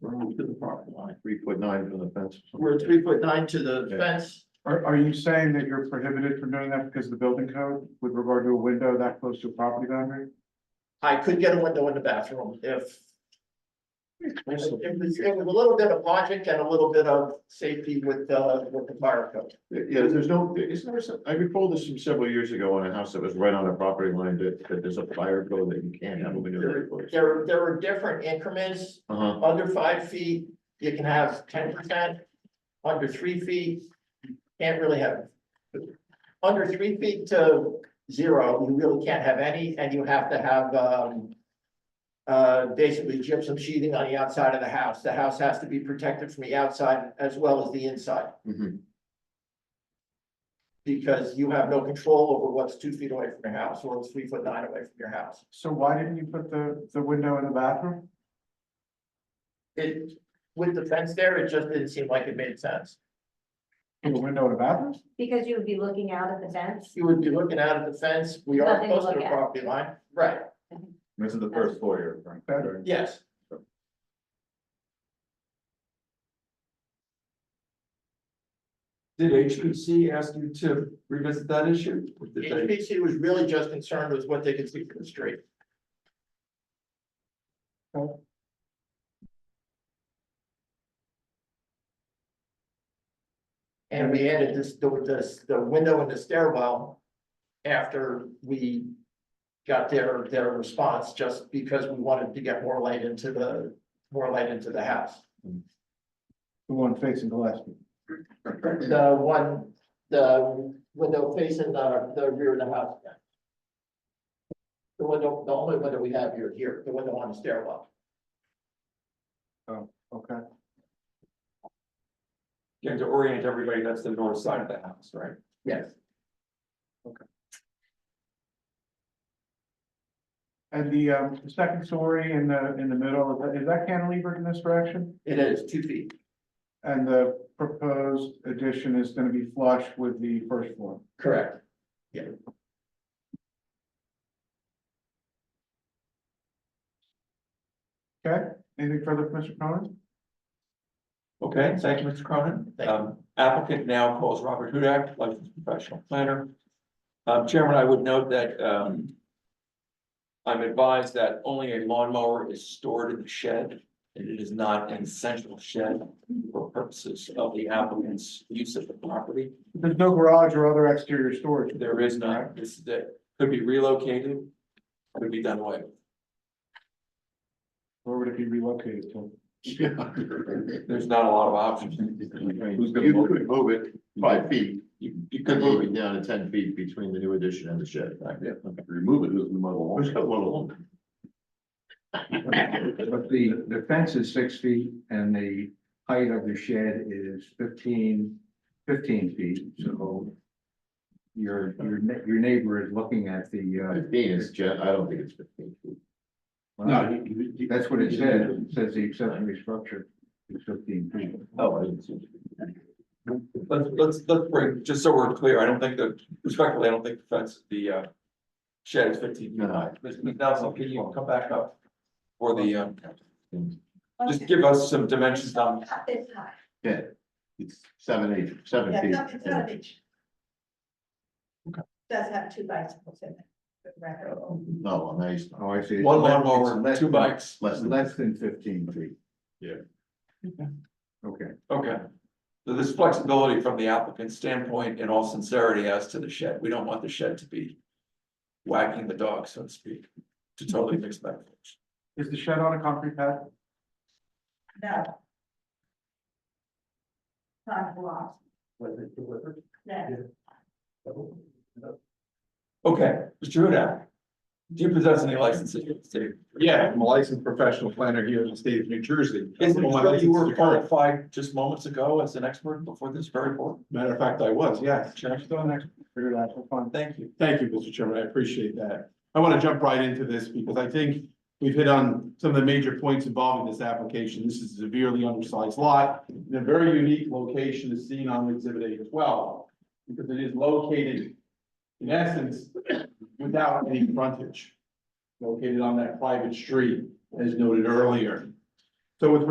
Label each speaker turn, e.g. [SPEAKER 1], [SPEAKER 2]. [SPEAKER 1] We're to the property line.
[SPEAKER 2] three foot nine from the fence.
[SPEAKER 1] We're three foot nine to the
[SPEAKER 2] Yeah.
[SPEAKER 1] fence.
[SPEAKER 3] Are, are you saying that you're prohibited from doing that because of the building code with regard to a window that close to a property boundary?
[SPEAKER 1] I could get a window in the bathroom if. It was, it was a little bit of logic and a little bit of safety with, uh, with the fire code.
[SPEAKER 2] Yeah, there's no, isn't there some, I recall this from several years ago on a house that was right on a property line that, that there's a fire code that you can't have a window that close.
[SPEAKER 1] There, there are different increments,
[SPEAKER 2] Uh-huh,
[SPEAKER 1] under five feet, you can have ten percent, under three feet, can't really have. Under three feet to zero, you really can't have any, and you have to have, um. Uh, basically gypsum sheathing on the outside of the house, the house has to be protected from the outside as well as the inside.
[SPEAKER 2] mhm.
[SPEAKER 1] Because you have no control over what's two feet away from your house or three foot nine away from your house.
[SPEAKER 3] So why didn't you put the, the window in the bathroom?
[SPEAKER 1] It, with the fence there, it just didn't seem like it made sense.
[SPEAKER 3] The window in the bathroom?
[SPEAKER 4] Because you would be looking out at the fence.
[SPEAKER 1] You would be looking out at the fence, we are
[SPEAKER 4] Nothing to
[SPEAKER 1] close to the
[SPEAKER 4] look at.
[SPEAKER 1] property line, right,
[SPEAKER 2] This is the first floor you're referring to.
[SPEAKER 1] yes.
[SPEAKER 5] Did HPC ask you to revisit that issue? Or did they-
[SPEAKER 1] HPC was really just concerned with what they could see from the street. And we added this, the, this, the window in the stairwell after we got their, their response, just because we wanted to get more light into the, more light into the house.
[SPEAKER 3] The one facing Gillespie.
[SPEAKER 1] The one, the window facing the, the rear of the house. yeah. The window, the only window we have here, here, the window on the stairwell.
[SPEAKER 3] Okay.
[SPEAKER 5] Again, to orient everybody, that's the north side of the house, right?
[SPEAKER 1] Yes.
[SPEAKER 3] And the, um, the second story in the, in the middle, is that- is that cantilevered in this direction?
[SPEAKER 1] It is two feet,
[SPEAKER 3] And the proposed addition is gonna be flush with the first floor.
[SPEAKER 1] correct.
[SPEAKER 3] Okay, anything further, from Mr. Cronin?
[SPEAKER 5] Okay, thank you, Mr. Cronin. Um, applicant now calls Robert Hudak, licensed professional planner. Um, Chairman, I would note that, um. I'm advised that only a lawnmower is stored in the shed, and it is not an essential shed for purposes of the applicant's use of the property.
[SPEAKER 3] There's no garage or other exterior storage.
[SPEAKER 5] There is not, this, that could be relocated, could be done away. with.
[SPEAKER 3] Where would it be relocated to?
[SPEAKER 5] There's not a lot of options.
[SPEAKER 2] You could move it five feet,
[SPEAKER 5] You, you
[SPEAKER 2] you could
[SPEAKER 5] could
[SPEAKER 2] move
[SPEAKER 5] move
[SPEAKER 2] it down to ten feet between the new addition and the shed.
[SPEAKER 5] Yeah.
[SPEAKER 2] Remove it, who's the model? Who's got one along?
[SPEAKER 6] But the, the fence is six feet and the height of the shed is 15 15 feet, so. Your, your, ne- your neighbor is looking at the,
[SPEAKER 2] Fifteen is, gen- I don't think it's fifteen feet.
[SPEAKER 6] uh. No. That's what it says, it says the accessory structure is fifteen feet.
[SPEAKER 2] Oh, I didn't see.
[SPEAKER 5] Let's, let's, let's bring, just so we're clear, I don't think the, respectfully, I don't think the fence, the uh. Shed is fifteen feet high. Mr. McNally, can you come back up? For the, um, just give us some dimensions on,
[SPEAKER 4] Not this high.
[SPEAKER 2] Yeah, it's seven, eight, seven
[SPEAKER 7] Yeah,
[SPEAKER 2] feet.
[SPEAKER 7] no, it's not a beach.
[SPEAKER 5] Okay.
[SPEAKER 7] Does have two bicycles in it. for the record.
[SPEAKER 2] Um, No, on ice,
[SPEAKER 6] Oh, I see. It's
[SPEAKER 5] one
[SPEAKER 6] less-
[SPEAKER 5] lawnmower,
[SPEAKER 6] it's less
[SPEAKER 5] two
[SPEAKER 6] than-
[SPEAKER 5] bikes.
[SPEAKER 2] less than,
[SPEAKER 6] Less than fifteen feet.
[SPEAKER 2] Yeah.
[SPEAKER 6] Okay,
[SPEAKER 5] Okay. So there's flexibility from the applicant's standpoint in all sincerity as to the shed. We don't want the shed to be. Wagging the dog, so to speak, to totally fix that.
[SPEAKER 3] Is the shed on a concrete pad?
[SPEAKER 7] No. Not blocked,
[SPEAKER 1] Was it delivered?
[SPEAKER 7] no,
[SPEAKER 5] Okay, Mr. Hudak. Do you possess any licenses in the state?
[SPEAKER 8] Yeah, I'm a licensed professional planner here in the state of New Jersey.
[SPEAKER 5] Isn't it
[SPEAKER 8] Well, my
[SPEAKER 5] true you
[SPEAKER 8] license
[SPEAKER 5] were
[SPEAKER 8] is current.
[SPEAKER 5] qualified just moments ago as an expert before this very board?
[SPEAKER 8] Matter of fact, I was, yes.
[SPEAKER 5] Chair,
[SPEAKER 3] Still an expert for your lateral fund.
[SPEAKER 5] Thank you.
[SPEAKER 8] Thank you, Mr. Chairman. I appreciate that. I want to jump right into this because I think we've hit on some of the major points involved in this application. This is a severely undersized lot in a very unique location is seen on exhibit A twelve because it is located in essence without any frontage located on that private street as noted earlier. So with